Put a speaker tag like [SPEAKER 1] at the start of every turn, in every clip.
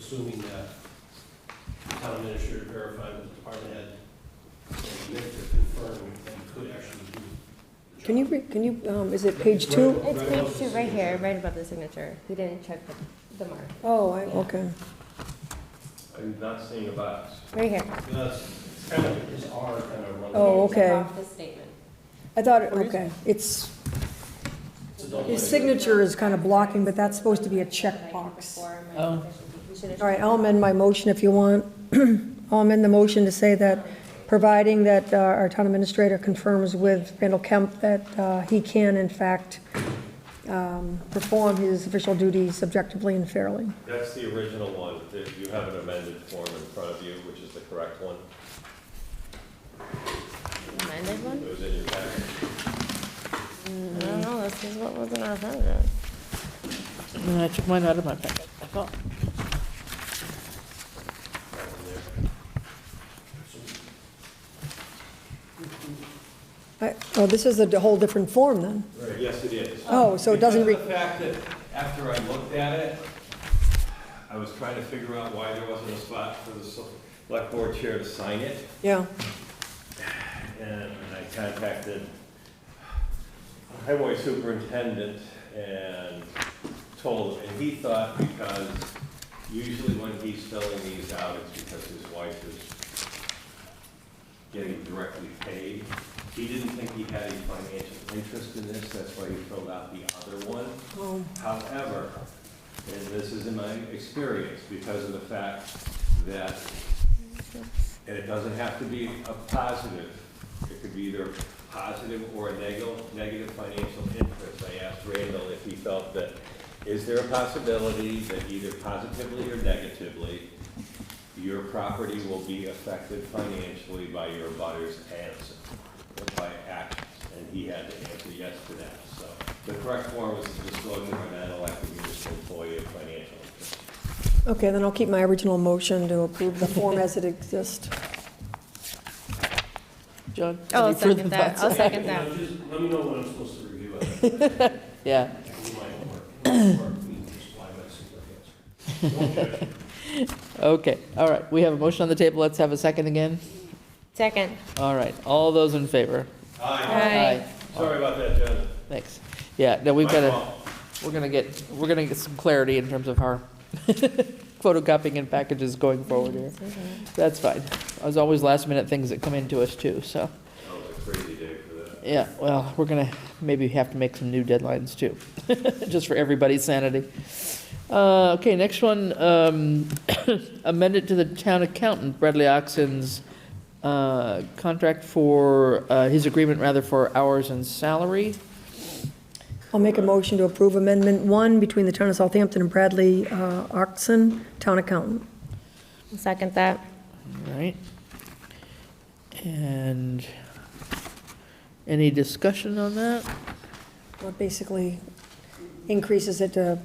[SPEAKER 1] assuming that the town administrator verified with the department head and the minister confirmed that you could actually do the job.
[SPEAKER 2] Can you, re- can you, um, is it page two?
[SPEAKER 1] Right
[SPEAKER 3] It's
[SPEAKER 1] above
[SPEAKER 3] page two,
[SPEAKER 1] the
[SPEAKER 3] right here,
[SPEAKER 1] signature.
[SPEAKER 3] right above the signature. He didn't check the- the mark.
[SPEAKER 2] Oh, I, okay.
[SPEAKER 4] I'm not seeing a box.
[SPEAKER 3] Right here.
[SPEAKER 1] That's it's kind of, his R kind of runs.
[SPEAKER 2] Oh,
[SPEAKER 3] He didn't check
[SPEAKER 2] okay.
[SPEAKER 3] off the statement.
[SPEAKER 2] I thought, it- okay, it's,
[SPEAKER 1] It's a double
[SPEAKER 2] his
[SPEAKER 1] edged-
[SPEAKER 2] signature is kind of blocking, but that's supposed to be a checkbox. All right, I'll amend my motion if you want. I'll amend the motion to say that, providing that uh, our town administrator confirms with Randall Kemp that uh, he can in fact um, perform his official duties objectively and fairly.
[SPEAKER 4] That's the original one. There- You have an amended form in front of you, which is the correct one.
[SPEAKER 3] Amended
[SPEAKER 4] It
[SPEAKER 3] one?
[SPEAKER 4] was in your packet.
[SPEAKER 3] I don't know, this is what was in our folder.
[SPEAKER 5] No, I took mine out of my packet. I thought,
[SPEAKER 4] That one
[SPEAKER 2] I- Oh, this is a whole different form then.
[SPEAKER 4] there. Yes, it is.
[SPEAKER 2] Oh, so it doesn't re-
[SPEAKER 4] Because of the fact that after I looked at it, I was trying to figure out why there wasn't a spot for the select board chair to sign it.
[SPEAKER 2] Yeah,
[SPEAKER 4] and I contacted highway superintendent and told him, and he thought because usually when he's filling these out, it's because his wife is getting directly paid. He didn't think he had any financial interest in this, that's why he filled out the other one.
[SPEAKER 2] Oh.
[SPEAKER 4] However, and this is in my experience, because of the fact that and it doesn't have to be a positive. It could be either positive or a neg- negative financial interest. I asked Randall if he felt that, is there a possibility that either positively or negatively, your property will be affected financially by your butter's answer, or by actions? And he had to answer yes to that, so. The correct form is to disclosure of an elected municipal employee of financial interest.
[SPEAKER 2] okay, then I'll keep my original motion to approve the form as it exists.
[SPEAKER 5] John?
[SPEAKER 3] Oh, I'll
[SPEAKER 5] any further
[SPEAKER 3] second that.
[SPEAKER 5] thoughts?
[SPEAKER 3] I'll second
[SPEAKER 1] You know,
[SPEAKER 3] that.
[SPEAKER 1] just Let me know when I'm supposed to review it.
[SPEAKER 5] Yeah,
[SPEAKER 1] I can do my homework. Or we can just fly by the seat of our pants.
[SPEAKER 5] okay, all right. We have a motion on the table. Let's have a second again.
[SPEAKER 3] Second.
[SPEAKER 5] All right, all those in favor?
[SPEAKER 4] Aye. Sorry about that, John.
[SPEAKER 5] Thanks. Yeah, no, we've
[SPEAKER 4] My
[SPEAKER 5] got to,
[SPEAKER 4] fault.
[SPEAKER 5] we're going to get, we're going to get some clarity in terms of our photocopying and packages going forward here. That's fine. There's always last minute things that come into us too,
[SPEAKER 4] That was
[SPEAKER 5] so,
[SPEAKER 4] a Oh, crazy day for that.
[SPEAKER 5] yeah, well, we're going to maybe have to make some new deadlines too, just for everybody's sanity. Uh, Okay, next one, um, amended to the town accountant Bradley Oxon's uh, contract for, uh, his agreement rather for hours and salary.
[SPEAKER 2] I'll make a motion to approve Amendment 1 between the Town of Southampton and Bradley uh, Oxon, Town Accountant.
[SPEAKER 3] I'll Second that.
[SPEAKER 5] All right. And any discussion on that?
[SPEAKER 2] Well, it Basically increases it to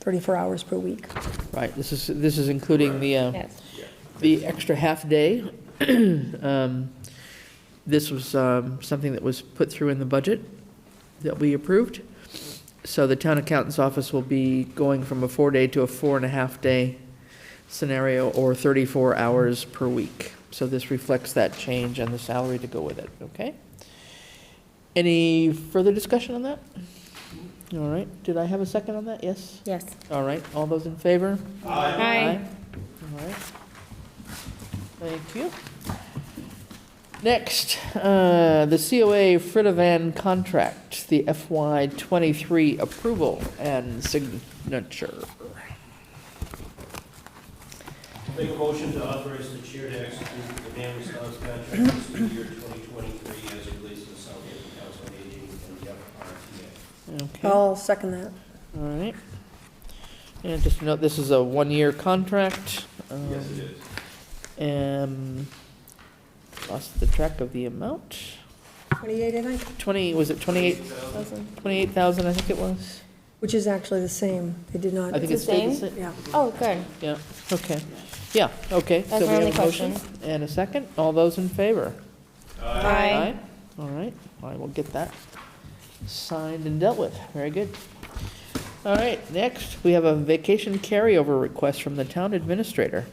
[SPEAKER 2] 34 hours per week.
[SPEAKER 5] Right, this is, this is including the, uh,
[SPEAKER 3] Yes.
[SPEAKER 5] the extra half-day. Um, This was um, something that was put through in the budget that we approved. So the town accountant's office will be going from a four-day to a four-and-a-half-day scenario, or 34 hours per week. So this reflects that change and the salary to go with it, okay? Any further discussion on that? All right, did I have a second on that? Yes?
[SPEAKER 3] Yes.
[SPEAKER 5] All right, all those in favor?
[SPEAKER 3] Aye.
[SPEAKER 5] All right. Thank you. Next, uh, the COA Fritovan contract, the FY '23 approval and signature.
[SPEAKER 1] Make a motion to authorize the chair to execute the demand response contract for fiscal year 2023 as it relates to the Southampton Council on Aging and the FRTA.
[SPEAKER 5] Okay, all
[SPEAKER 2] I'll second that.
[SPEAKER 5] right. And just note, this is a one-year contract.
[SPEAKER 4] Yes,
[SPEAKER 5] um,
[SPEAKER 4] it is.
[SPEAKER 5] Um, lost the track of the amount.
[SPEAKER 2] 28, I think,
[SPEAKER 5] 20, was it 28, 28,000, I think it was?
[SPEAKER 2] which is actually the same. They did not,
[SPEAKER 5] I think
[SPEAKER 3] the
[SPEAKER 5] it stayed the
[SPEAKER 3] same?
[SPEAKER 5] same.
[SPEAKER 2] yeah.
[SPEAKER 3] Oh, good.
[SPEAKER 5] Yeah, okay. Yeah, okay. So
[SPEAKER 3] That's
[SPEAKER 5] we
[SPEAKER 3] my
[SPEAKER 5] have
[SPEAKER 3] only
[SPEAKER 5] a motion And a second. All those in favor?
[SPEAKER 3] Aye.
[SPEAKER 5] All right, I will get that signed and dealt with. Very good. All right, next, we have a vacation carryover request from the town administrator.